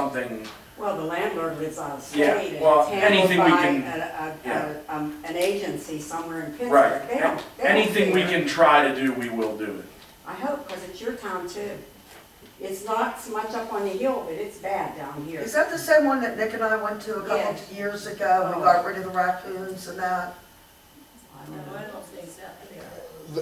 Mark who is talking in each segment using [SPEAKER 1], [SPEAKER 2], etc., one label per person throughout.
[SPEAKER 1] something,
[SPEAKER 2] Well, the landlord lives out of state,
[SPEAKER 1] Yeah,
[SPEAKER 2] and it's
[SPEAKER 1] well,
[SPEAKER 2] handled
[SPEAKER 1] anything we
[SPEAKER 2] by
[SPEAKER 1] can-
[SPEAKER 2] a- a-
[SPEAKER 1] yeah.
[SPEAKER 2] a- um, an agency somewhere in
[SPEAKER 1] right,
[SPEAKER 2] Pittsburgh. They don't- they don't
[SPEAKER 1] anything we
[SPEAKER 2] care.
[SPEAKER 1] can try to do, we will do it.
[SPEAKER 2] I hope, because it's your town too. It's not so much up on the hill, but it's bad down here.
[SPEAKER 3] Is that the same one that Nick and I went to a couple
[SPEAKER 2] Yes. Oh.
[SPEAKER 3] of years ago? We got rid of the raccoons and that?
[SPEAKER 2] I
[SPEAKER 4] No,
[SPEAKER 2] don't know.
[SPEAKER 4] I don't think so.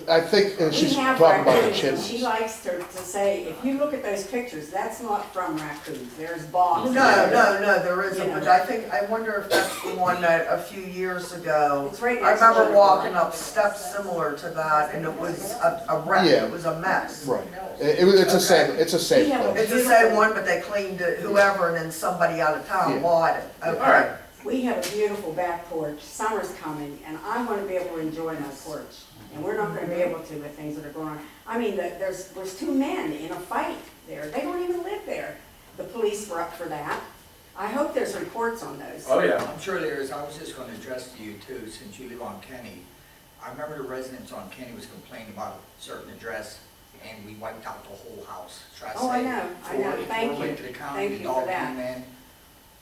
[SPEAKER 5] I think, and
[SPEAKER 2] We
[SPEAKER 5] she's
[SPEAKER 2] have
[SPEAKER 5] talking about the
[SPEAKER 2] raccoons, and she
[SPEAKER 5] chimneys.
[SPEAKER 2] likes to, to say, if you look at those pictures, that's not from raccoons, there's bogs.
[SPEAKER 3] No, no, no, there isn't, but I think, I wonder if that's the one that a few years ago.
[SPEAKER 2] It's right
[SPEAKER 3] I
[SPEAKER 2] next to
[SPEAKER 3] remember
[SPEAKER 2] the-
[SPEAKER 3] walking up steps similar to that and it was a, a wreck,
[SPEAKER 5] Yeah.
[SPEAKER 3] it was a mess.
[SPEAKER 5] Right. It, it was- it's the same, it's the same
[SPEAKER 2] We have a-
[SPEAKER 5] place.
[SPEAKER 3] It's the same one, but they cleaned it, whoever, and then somebody out of town
[SPEAKER 5] Yeah.
[SPEAKER 3] bought it.
[SPEAKER 1] All right,
[SPEAKER 3] Okay.
[SPEAKER 2] We have a beautiful back porch, summer's coming, and I wanna be able to enjoy my porch. And we're not gonna be able to with things that are going on. I mean, the- there's, there's two men in a fight there, they don't even live there. The police were up for that. I hope there's reports on those.
[SPEAKER 1] oh yeah,
[SPEAKER 6] I'm sure there is, I was just gonna address to you too, since you live on Kenny. I remember the residents on Kenny was complaining about a certain address, and we wiped out the whole house. Try to
[SPEAKER 2] Oh, I
[SPEAKER 6] say
[SPEAKER 2] know, I
[SPEAKER 6] four-
[SPEAKER 2] know. Thank
[SPEAKER 6] Four went
[SPEAKER 2] you.
[SPEAKER 6] to the county,
[SPEAKER 2] Thank
[SPEAKER 6] the
[SPEAKER 2] you for
[SPEAKER 6] dog
[SPEAKER 2] that.
[SPEAKER 6] came in,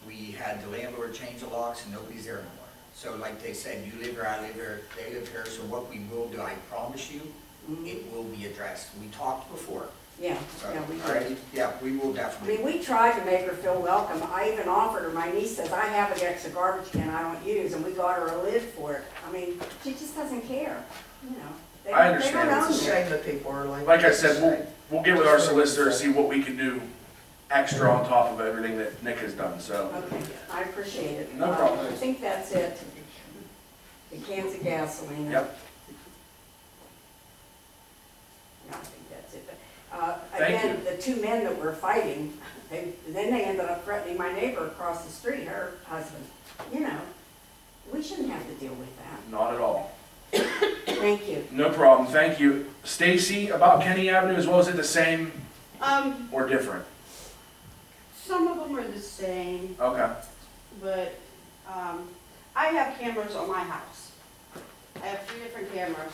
[SPEAKER 6] we had the landlord change the locks, and nobody's there anymore. So like they said, you live here, I live here, they live here, so what we will do, I promise you,
[SPEAKER 2] Mhm.
[SPEAKER 6] it will be addressed. We talked before,
[SPEAKER 2] Yeah,
[SPEAKER 6] so,
[SPEAKER 2] yeah, we
[SPEAKER 6] all
[SPEAKER 2] do.
[SPEAKER 6] right, yeah, we will
[SPEAKER 2] I
[SPEAKER 6] definitely.
[SPEAKER 2] mean, we tried to make her feel welcome. I even offered her, my niece says, I have an extra garbage can I don't use, and we got her a lid for it. I mean, she just doesn't care, you know. They
[SPEAKER 1] I
[SPEAKER 2] don't- they don't
[SPEAKER 1] understand.
[SPEAKER 2] own
[SPEAKER 3] It's a
[SPEAKER 2] it.
[SPEAKER 3] shame that people are like.
[SPEAKER 1] like I said, we'll, we'll get with our solicitor, and see what we can do extra on top of everything that Nick has done, so.
[SPEAKER 2] Okay, I appreciate it.
[SPEAKER 1] No problem.
[SPEAKER 2] I think that's it. The cans of gasoline.
[SPEAKER 1] Yep.
[SPEAKER 2] No, I think that's it, but, uh,
[SPEAKER 1] Thank
[SPEAKER 2] again, the two men that were fighting, they, then they ended up threatening my neighbor across the street, her husband. You know, we shouldn't have to deal with that.
[SPEAKER 1] Not at all,
[SPEAKER 2] Thank you.
[SPEAKER 1] no problem, thank you. Stacy, about Kenny Avenue as well, is it the same
[SPEAKER 7] Um,
[SPEAKER 1] or different?
[SPEAKER 7] some of them are the same,
[SPEAKER 1] Okay,
[SPEAKER 7] but, um, I have cameras on my house. I have three different cameras.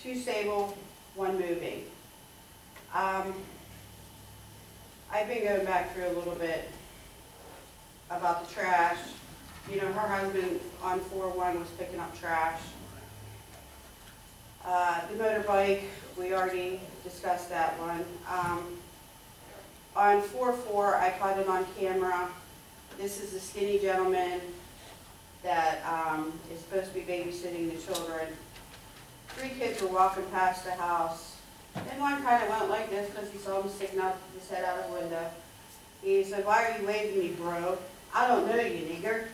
[SPEAKER 7] Two stable, one moving. Um, I've been going back through a little bit about the trash. You know, her husband on four one was picking up trash. Uh, the motorbike, we already discussed that one. Um, on four four, I caught it on camera. This is the skinny gentleman that, um, is supposed to be babysitting the children. Three kids were walking past the house, and one kinda went like this because he saw him sticking out his head out the window. He said, why are you waving me, bro? I don't know you, nigger.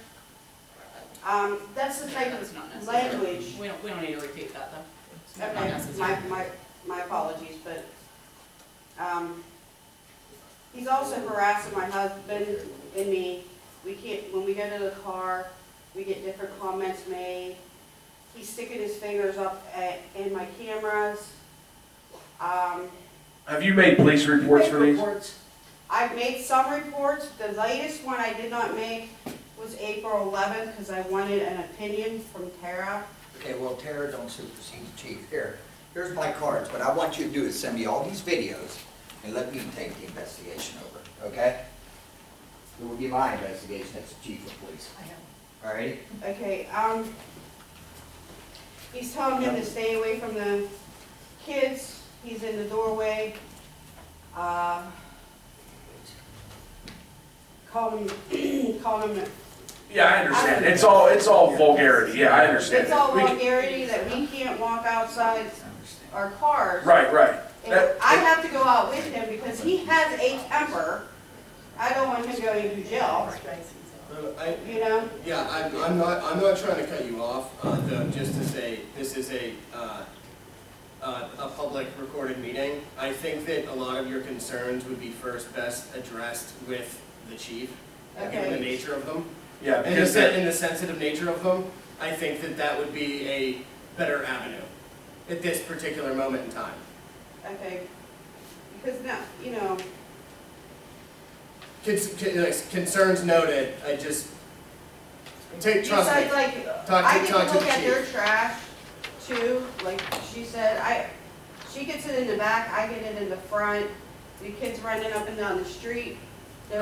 [SPEAKER 7] Um, that's the type
[SPEAKER 4] That's not
[SPEAKER 7] of
[SPEAKER 4] necessary.
[SPEAKER 7] language
[SPEAKER 4] We don't, we don't need to repeat that though. It's not
[SPEAKER 7] Okay,
[SPEAKER 4] necessary.
[SPEAKER 7] my, my, my apologies, but, um, he's also harassing my husband and me. We can't, when we go to the car, we get different comments made. He's sticking his fingers up at, in my cameras. Um,
[SPEAKER 1] have you made police reports for these?
[SPEAKER 7] I've made some reports. The latest one I did not make was April eleventh, because I wanted an opinion from Tara.
[SPEAKER 6] Okay, well, Tara, don't supersede the chief. Here, here's my cards. What I want you to do is send me all these videos and let me take the investigation over, okay? It will be my investigation, that's the chief of police. All righty?
[SPEAKER 7] Okay, um, he's telling him to stay away from the kids, he's in the doorway. Uh, Call him, call him,
[SPEAKER 1] Yeah, I understand, it's all, it's all vulgarity, yeah, I understand.
[SPEAKER 7] it's all
[SPEAKER 1] We can-
[SPEAKER 7] vulgarity that we can't walk outside our cars.
[SPEAKER 1] Right, right,
[SPEAKER 7] And I have to go out with him because he has a temper, I don't want him going to jail,
[SPEAKER 8] Uh, I,
[SPEAKER 7] you know?
[SPEAKER 8] yeah, I'm, I'm not, I'm not trying to cut you off, uh, though, just to say, this is a, uh, uh, a public recorded meeting. I think that a lot of your concerns would be first best addressed with the chief, given the
[SPEAKER 7] Okay.
[SPEAKER 8] nature of them.
[SPEAKER 1] yeah,
[SPEAKER 8] And the,
[SPEAKER 1] because.
[SPEAKER 8] sen- and the sensitive nature of them, I think that that would be a better avenue at this particular moment in time.
[SPEAKER 7] Okay, because now, you know,
[SPEAKER 8] Cons- con- like, Concerns noted, I just, take, trust
[SPEAKER 7] besides
[SPEAKER 8] me,
[SPEAKER 7] like,
[SPEAKER 8] talk
[SPEAKER 7] I
[SPEAKER 8] to,
[SPEAKER 7] get
[SPEAKER 8] talk
[SPEAKER 7] to
[SPEAKER 8] to the
[SPEAKER 7] look at their
[SPEAKER 8] chief.
[SPEAKER 7] trash too, like she said, I, she gets it in the back, I get it in the front. The kids running up and down the street,